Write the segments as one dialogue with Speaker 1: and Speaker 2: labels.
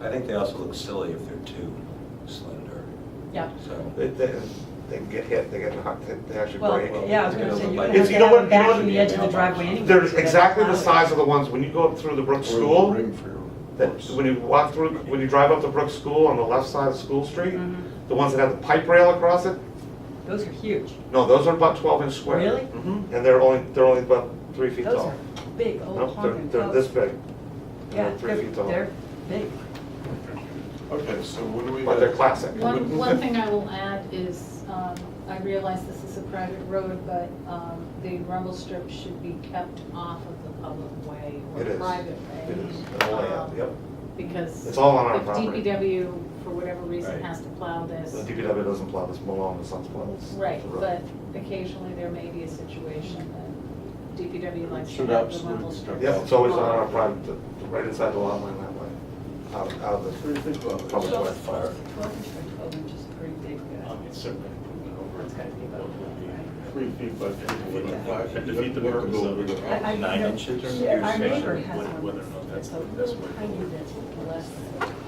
Speaker 1: I think they also look silly if they're too slender,
Speaker 2: Yeah.
Speaker 1: so.
Speaker 3: They, they, they can get hit, they get knocked, they- they actually
Speaker 2: Well,
Speaker 3: break.
Speaker 2: yeah, I was gonna say, you're gonna have
Speaker 3: It's-
Speaker 2: to
Speaker 3: you know
Speaker 2: have them
Speaker 3: what- you know
Speaker 2: back
Speaker 3: what
Speaker 2: from the
Speaker 3: the
Speaker 2: edge of the
Speaker 4: email
Speaker 2: driveway
Speaker 4: box
Speaker 2: anyway.
Speaker 3: They're
Speaker 2: so that's
Speaker 3: exactly the
Speaker 2: not-
Speaker 3: size of the ones, when you go up through the Brook School,
Speaker 4: Ring for your
Speaker 3: that,
Speaker 4: horse.
Speaker 3: when you walk through, when you drive up to Brook School on the left side of School Street,
Speaker 2: Mhm.
Speaker 3: the ones that have the pipe rail across it,
Speaker 2: Those are huge.
Speaker 3: no, those are about twelve inch square.
Speaker 2: Really?
Speaker 3: hmm and they're only, they're only about three feet
Speaker 2: Those
Speaker 3: tall.
Speaker 2: are big old
Speaker 3: No, they're,
Speaker 2: honking
Speaker 3: they're this
Speaker 2: posts.
Speaker 3: big,
Speaker 2: Yeah,
Speaker 3: they're three
Speaker 2: they're-
Speaker 3: feet tall.
Speaker 2: They're big.
Speaker 4: Okay, so what do we?
Speaker 3: but they're classic.
Speaker 5: One, one thing I will add is, um, I realize this is a private road, but, um, the rumble strip should be kept off of the public way or
Speaker 3: It is.
Speaker 5: private way.
Speaker 3: It is, the whole layout,
Speaker 5: um,
Speaker 3: yep.
Speaker 5: Because.
Speaker 3: It's all on our
Speaker 5: if
Speaker 3: property.
Speaker 5: DPW, for whatever reason,
Speaker 1: Right.
Speaker 5: has to plow this.
Speaker 3: The DPW doesn't plow this, Malone and Sons plow this.
Speaker 5: Right,
Speaker 3: the road.
Speaker 5: but occasionally there may be a situation that DPW likes to
Speaker 4: Should
Speaker 5: have the rumble
Speaker 4: absolutely.
Speaker 5: strip.
Speaker 3: Yeah, it's always on our private, the- the right inside the lot line that way, out, out of the, Probably
Speaker 2: Twelve-
Speaker 3: worth fire.
Speaker 2: Twelve inch by twelve inch is pretty big. uh,
Speaker 6: Um,
Speaker 4: It's
Speaker 2: gotta be about that,
Speaker 4: Three feet by three feet.
Speaker 2: Yeah.
Speaker 4: Five feet.
Speaker 6: Defeat the purpose of it.
Speaker 2: I- I-
Speaker 1: Nine
Speaker 2: no,
Speaker 1: inches or
Speaker 2: yeah, Our
Speaker 1: something?
Speaker 2: neighbor has
Speaker 6: Whether-
Speaker 2: one
Speaker 6: whether or
Speaker 2: that's,
Speaker 6: not
Speaker 2: that's
Speaker 6: that's-
Speaker 2: a
Speaker 6: that's
Speaker 2: little
Speaker 6: what it
Speaker 2: tiny
Speaker 6: is.
Speaker 2: that's less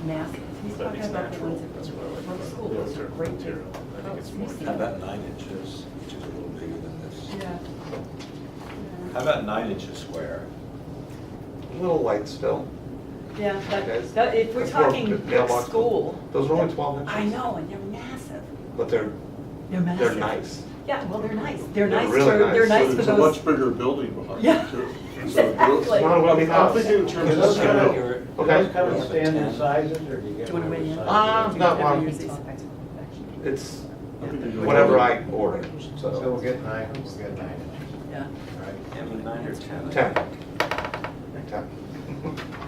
Speaker 2: massive. He's
Speaker 6: But I
Speaker 2: talking
Speaker 6: think it's
Speaker 2: about the
Speaker 6: natural.
Speaker 2: ones that
Speaker 6: That's what
Speaker 2: were
Speaker 6: I like
Speaker 2: from
Speaker 6: about
Speaker 2: school,
Speaker 6: it.
Speaker 2: those are
Speaker 6: Natural
Speaker 2: great. big.
Speaker 6: material. I think
Speaker 2: Oh,
Speaker 6: it's
Speaker 2: you
Speaker 6: more-
Speaker 1: How
Speaker 2: see that?
Speaker 1: about nine inches, which is a little bigger than this?
Speaker 2: Yeah.
Speaker 1: How about nine inches square?
Speaker 3: a little light still.
Speaker 2: Yeah,
Speaker 3: Okay.
Speaker 2: that, that, if we're
Speaker 3: That's more
Speaker 2: talking
Speaker 3: good mailbox.
Speaker 2: school.
Speaker 3: Those are only twelve inches.
Speaker 2: I know, and they're massive.
Speaker 3: But they're,
Speaker 2: They're massive.
Speaker 3: they're nice.
Speaker 2: Yeah, well, they're nice. They're
Speaker 3: They're
Speaker 2: nice for,
Speaker 3: really nice.
Speaker 2: they're nice
Speaker 4: So
Speaker 2: for
Speaker 4: It's a much
Speaker 2: those.
Speaker 4: bigger building behind
Speaker 2: Yeah,
Speaker 4: it too.
Speaker 2: exactly.
Speaker 3: Not what we
Speaker 4: I'm
Speaker 3: have.
Speaker 4: thinking in terms of scale.
Speaker 7: Do
Speaker 3: Okay.
Speaker 7: those come in standard sizes, or do you get?
Speaker 2: Do you wanna
Speaker 7: whatever
Speaker 2: weigh in?
Speaker 7: size
Speaker 6: Uh,
Speaker 3: Ah,
Speaker 7: you
Speaker 3: no,
Speaker 7: get?
Speaker 3: well, It's whatever I order,
Speaker 7: So we'll
Speaker 3: so,
Speaker 7: get nine, we'll get nine inches,
Speaker 2: Yeah.
Speaker 7: right?
Speaker 1: Yeah, but nine or 10. I
Speaker 3: ten.
Speaker 1: think.
Speaker 3: Ten.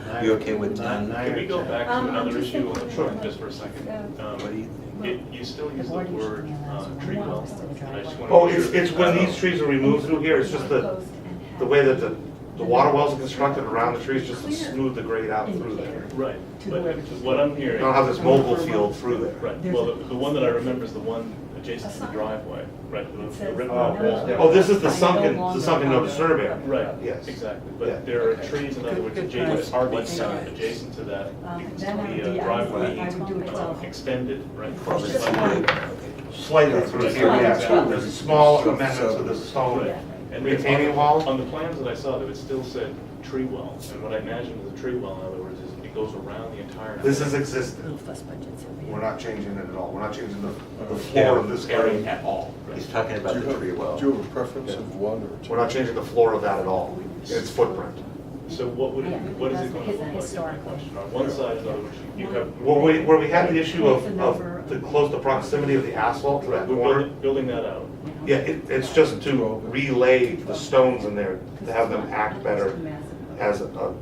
Speaker 7: Nine
Speaker 1: You
Speaker 7: or-
Speaker 1: okay with nine?
Speaker 7: nine
Speaker 6: Can we
Speaker 7: or
Speaker 6: go
Speaker 7: ten.
Speaker 6: back
Speaker 2: Um,
Speaker 6: to
Speaker 2: I'm
Speaker 6: another
Speaker 2: just
Speaker 6: issue on the
Speaker 2: thinking
Speaker 6: truck
Speaker 2: about-
Speaker 6: just for a second?
Speaker 2: Yeah.
Speaker 6: Um,
Speaker 1: What do you
Speaker 6: it- You still use the
Speaker 2: board usually
Speaker 6: word
Speaker 2: allows
Speaker 6: uh,
Speaker 2: one
Speaker 6: tree
Speaker 2: more
Speaker 6: well.
Speaker 2: person to drive
Speaker 6: I just
Speaker 2: one.
Speaker 6: wanna
Speaker 3: Oh,
Speaker 6: make
Speaker 3: it's,
Speaker 6: sure-
Speaker 3: it's when these
Speaker 6: Uh,
Speaker 3: trees are removed through here, it's just the, the way that the, the water wells are constructed around the trees, just to smooth the grade out through there.
Speaker 6: Right,
Speaker 2: To
Speaker 6: but
Speaker 2: whoever-
Speaker 6: what I'm
Speaker 3: You
Speaker 6: hearing.
Speaker 3: don't have this mobile field through there.
Speaker 6: Right, well, the the one that I remember is the one adjacent to the driveway, right? the-
Speaker 2: It
Speaker 6: the
Speaker 2: says,
Speaker 6: red
Speaker 7: Oh,
Speaker 6: one.
Speaker 7: yeah.
Speaker 3: Oh, this is the
Speaker 2: I no
Speaker 3: sunken,
Speaker 2: longer
Speaker 3: the sunken no
Speaker 2: have a-
Speaker 3: disturb area.
Speaker 6: Right,
Speaker 3: Yes.
Speaker 6: exactly,
Speaker 3: Yeah.
Speaker 6: but there are
Speaker 1: Okay.
Speaker 6: trees, in other
Speaker 2: Good-
Speaker 6: words,
Speaker 2: good
Speaker 6: adjacent,
Speaker 2: question.
Speaker 6: RV
Speaker 1: Thank
Speaker 6: signs
Speaker 1: you.
Speaker 6: adjacent to that,
Speaker 2: Um,
Speaker 6: because
Speaker 2: then I would
Speaker 6: the
Speaker 2: do-
Speaker 6: uh,
Speaker 2: I
Speaker 6: driveway
Speaker 2: would- I would do it
Speaker 6: uh,
Speaker 2: twelve.
Speaker 6: extended, right?
Speaker 1: Well, it's
Speaker 6: Right.
Speaker 1: big, okay.
Speaker 3: Slightly through here, yeah, there's a small amendment to the stone
Speaker 6: Right. And then
Speaker 3: retaining
Speaker 6: on-
Speaker 3: wall.
Speaker 6: On the plans that I saw, though, it still said tree well, and what I imagine is a tree well, in other words, is it goes around the entire.
Speaker 3: This is
Speaker 2: Little
Speaker 3: existing,
Speaker 2: fuss budgets over here.
Speaker 3: we're not changing it at all, we're not changing the, the floor of this area at all.
Speaker 1: He's talking about
Speaker 4: Do you
Speaker 1: the
Speaker 4: have-
Speaker 1: tree well.
Speaker 4: Do you have a preference of one or 2
Speaker 3: We're not changing the floor of that at all, it's footprint.
Speaker 6: So what would, it-
Speaker 2: Yeah,
Speaker 6: what is
Speaker 2: that's
Speaker 6: it going to look
Speaker 2: because
Speaker 6: like? is my
Speaker 2: historical.
Speaker 6: question. On one side, in other words, you you have.
Speaker 3: Where we, where we had the issue of, of the close, the proximity of the asphalt to
Speaker 6: We're
Speaker 3: that corner,
Speaker 6: building- Building that out.
Speaker 3: Yeah, it, it's just to relay the stones in there, to have them act better as a, a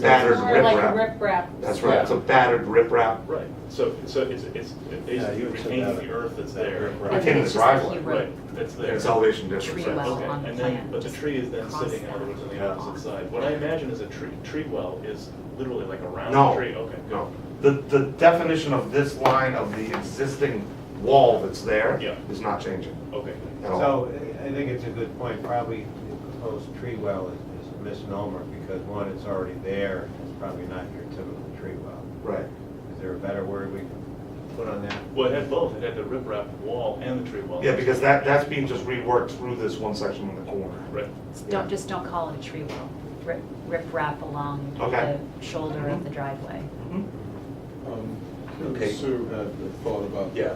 Speaker 3: battered
Speaker 5: It's More like a
Speaker 3: riprap.
Speaker 5: riprap.
Speaker 3: That's right, it's a battered riprap,
Speaker 6: Right, so, so it's, it's it's basically
Speaker 4: you would say
Speaker 6: retaining
Speaker 4: that-
Speaker 6: the earth that's there.
Speaker 3: I came in the driveway.
Speaker 6: Right, that's there.
Speaker 3: It's elevation district.
Speaker 2: Tree well
Speaker 6: Okay,
Speaker 2: on the
Speaker 6: and then,
Speaker 2: plan,
Speaker 6: but the
Speaker 2: just
Speaker 6: tree is then
Speaker 2: cross
Speaker 6: sitting, in other
Speaker 2: that
Speaker 6: words, on the opposite side. What I imagine is a tree, tree well is literally like a
Speaker 3: No.
Speaker 6: round tree, okay,
Speaker 3: No,
Speaker 6: go.
Speaker 3: the, the definition of this line of the existing wall that's there
Speaker 6: Yeah.
Speaker 3: is not changing
Speaker 6: Okay,
Speaker 3: at all.
Speaker 7: So I I think it's a good point, probably the proposed tree well is is a misnomer, because one, it's already there, it's probably not your typical tree well.
Speaker 3: Right.
Speaker 7: Is there a better word we can put on that?
Speaker 6: well, it had both, it had the riprap wall and the tree well.
Speaker 3: Yeah, because that, that's being just reworked through this one section in the corner.
Speaker 6: Right,
Speaker 8: Don't, just don't call it a tree well. Rip, rip wrap along
Speaker 3: Okay. Mm-hmm.
Speaker 8: the shoulder of the driveway.
Speaker 4: Um,
Speaker 1: Okay.
Speaker 4: Sue had a thought about.
Speaker 1: Yeah,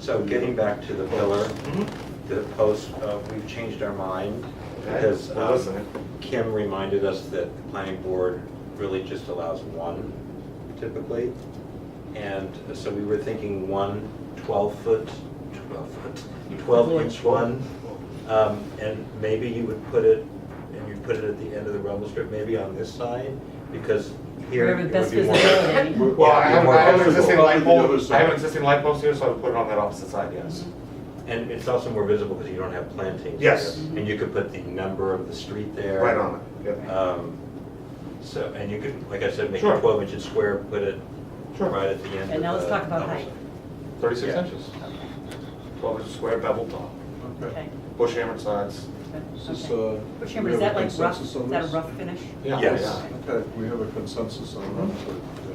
Speaker 1: so getting back to the pillar,
Speaker 3: Mhm.
Speaker 1: the post, uh, we've changed our mind
Speaker 3: Okay,
Speaker 1: because
Speaker 3: we're
Speaker 1: um,
Speaker 3: listening.
Speaker 1: Kim reminded us that the planning board really just allows one typically. And uh, so we were thinking one 12-foot, 12-foot, 12-inch one. Um, And maybe you would put it, and you put it at the end of the rumble strip, maybe on this side, because here
Speaker 2: Wherever
Speaker 1: it
Speaker 2: the
Speaker 1: would
Speaker 2: best
Speaker 1: be more.
Speaker 2: visibility.
Speaker 3: Well, I
Speaker 1: Yeah,
Speaker 3: have,
Speaker 1: more
Speaker 3: I have an
Speaker 1: comfortable.
Speaker 3: existing
Speaker 4: Probably
Speaker 3: light
Speaker 4: the other
Speaker 3: pole, I
Speaker 4: side.
Speaker 3: have an existing light post here, so I would put it on that opposite side, yes.
Speaker 1: And it's also more visible because you don't have plantings.
Speaker 3: Yes.
Speaker 1: there. And you could put the number of the street there.
Speaker 3: Right on it, yep.
Speaker 1: Um, So, and you could, like I said, make
Speaker 3: Sure.
Speaker 1: it 12 inches square, put it
Speaker 3: Sure.
Speaker 1: right at the end.
Speaker 2: And now
Speaker 1: of
Speaker 2: let's
Speaker 1: the
Speaker 2: talk about
Speaker 1: double
Speaker 2: height.
Speaker 3: Thirty-six
Speaker 1: Yeah.
Speaker 3: inches. Twelve inches square bevel top,
Speaker 4: Okay.
Speaker 2: Okay.
Speaker 3: bush hammered sides.
Speaker 4: Is
Speaker 2: Okay.
Speaker 4: this, uh,
Speaker 2: But
Speaker 4: we
Speaker 2: Chairman, is
Speaker 4: have
Speaker 2: that like
Speaker 4: a
Speaker 2: rough, Mm-hmm.
Speaker 4: consensus
Speaker 2: is
Speaker 4: on
Speaker 2: that a
Speaker 4: this?
Speaker 2: rough finish?
Speaker 1: Yes.
Speaker 4: Okay, we have a consensus on that, so